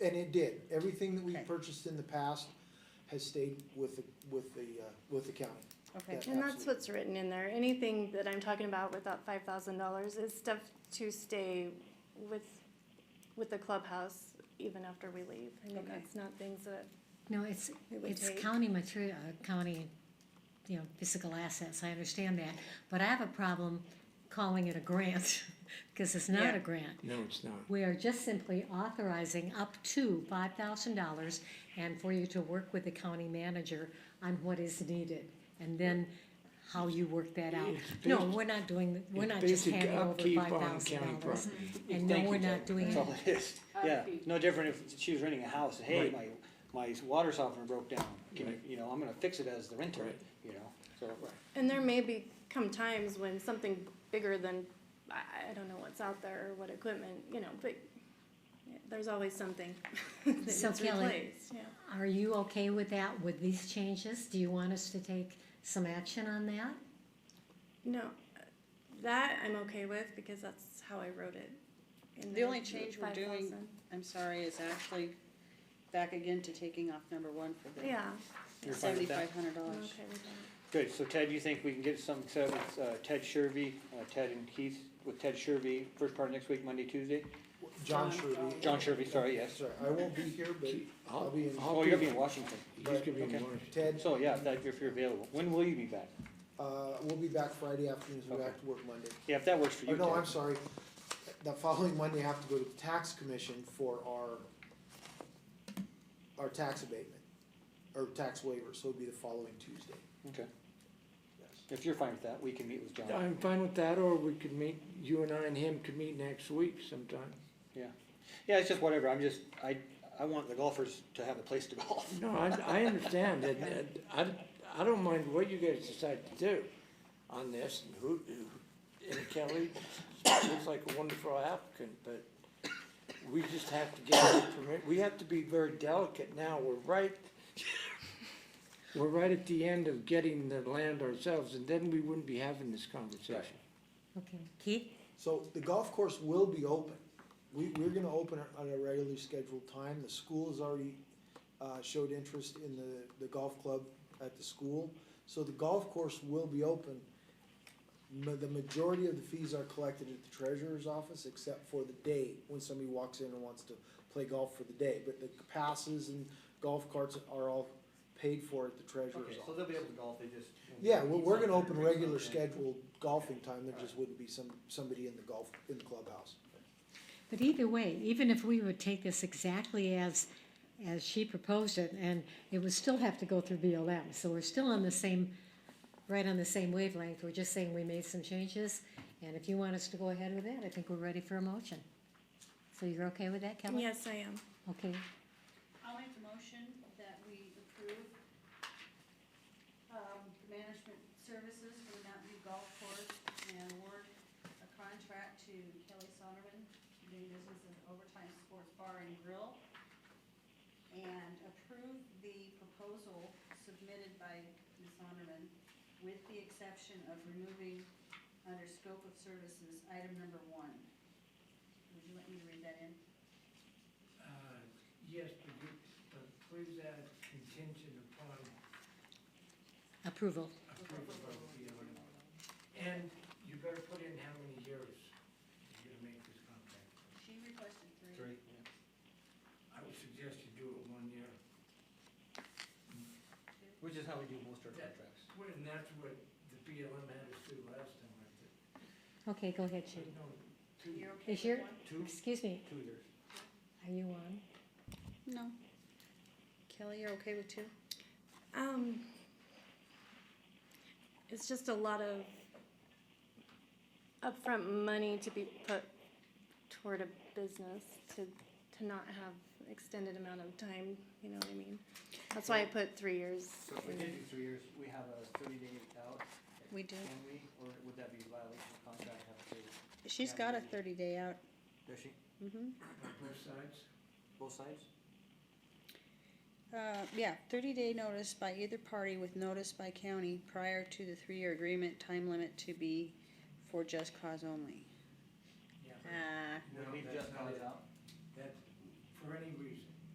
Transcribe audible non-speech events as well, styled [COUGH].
And it did, everything that we Okay. purchased in the past has stayed with, the with the, uh, with the county. Okay, Yeah. And that's Absolutely. what's written in there. Anything that I'm talking about with that five thousand dollars is stuff to stay with, with the clubhouse even after we leave. I mean, Okay. that's not things that, No, it's, It would it's take- county material, uh, county, you know, physical assets, I understand that, but I have a problem calling it a grant, [LAUGHS] because it's not Yeah. a grant. No, it's not. We are just simply authorizing up to five thousand dollars and for you to work with the county manager on what is needed, and then how you work that out. It's No, basi- we're not doing, the- we're it's not just basic handing over upkeep five on thousand county dollars. property. And no, Thank you, we're Jack. not doing That's it. all it is. Yeah, Upkeep. no different if she was renting a house, hey, my, Right. my water softener broke down, can you, Right. you know, I'm gonna fix it as the renter, Right. you know, so. and there may be come times when something bigger than, I, I don't know what's out there or what equipment, you know, but yeah, there's always something [LAUGHS] that needs So Kelly- replaced, yeah. Are you okay with that, with these changes? Do you want us to take some action on that? No, uh, that I'm okay with because that's how I wrote it. in The there, only change we're doing- 5,000. I'm sorry, it's actually back again to taking off number one for the Yeah, You're fine with that? seventy-five hundred I'm dollars. okay with that. Good, so Ted, you think we can get some, set up with uh, Ted Shervy, uh, Ted and Keith, with Ted Shervy, first part of next week, Monday, Tuesday? John John- Sherby. John Shervy, sorry, yes. Sorry, I won't be here, but I'll be in- Oh, you're gonna be in Washington, He's gonna be in Okay. Washington. Ted, so yeah, if that, if you're available, when will you be back? uh, we'll be back Friday afternoon, so we're back to work Monday. Yeah, if that works for Oh, you, no, I'm Ted, sorry, the following Monday, I have to go to the tax commission for our, our tax abatement, or tax waiver, so it'll be the following Tuesday. okay, Yes. if you're fine with that, we can meet with John, I'm fine with that, or we could meet, you and I and him could meet next week sometime. yeah, it's just whatever, I'm just, I, I want the golfers to have a place to [LAUGHS] golf. No, I, I understand, and, and I, I don't mind what you guys decide to do on this, and who, who- and Kelly looks like a wonderful applicant, but we just have to get the permit, we have to be very delicate now, we're right, we're right at the end of getting the land ourselves, and then we wouldn't be having this conversation. Okay, Keith? So the golf course will be open. We, we're gonna open it on a regularly scheduled time. The school has already, uh, showed interest in the, the golf club at the school. So the golf course will be open. Ma- the majority of the fees are collected at the treasurer's office, except for the day when somebody walks in and wants to play golf for the day. But the passes and golf carts are all paid for at the treasurer's office. they'll be able to golf, they just. Yeah, well, we're gonna open regular scheduled golfing time, there just wouldn't be some, somebody in the golf, in the clubhouse. But either way, even if we would take this exactly as, as she proposed it, and it would still have to go through BLM, so we're still on the same, right on the same wavelength, we're just saying we made some changes, and if you want us to go ahead with that, I think we're ready for a motion. So you're okay with that, Kelly? Yes, I am. Okay, I'll make the motion that we approve um, the management services for the Mountain View Golf Course and award a contract to Kelly Sonderman, doing business as Overtime Sports Bar and Grill, and approve the proposal submitted by Ms. Sonderman with the exception of removing under scope of services, item number one. Would you let me read that in? Uh, Yes, but you, but please add contingent upon approval. approval of the owner. And you better put in how many years you're gonna make this contract. She requested three. I would suggest you do it one year, Which is how we do most our contracts. and that's what the BLM had us do last time, I think. Okay, go ahead, Judy. No, two, You're okay Is with your, one? Two, excuse me, two years. are you on? No. Kelly, you're okay with two? Um, it's just a lot of upfront money to be put toward a business to to not have extended amount of time. You know what I mean? That's why I put three years. So if we in did there. do three years, we have a thirty day out, We do. can we, or would that be a violation of contract, have to, She's got a thirty day out. does she, Mm-hmm. on both sides? both sides? Uh, yeah, thirty day notice by either party with notice by county prior to the three-year agreement time limit to be for just cause only. Yeah. Ah, No, Would we that's just not call it. it out? That's for any reason.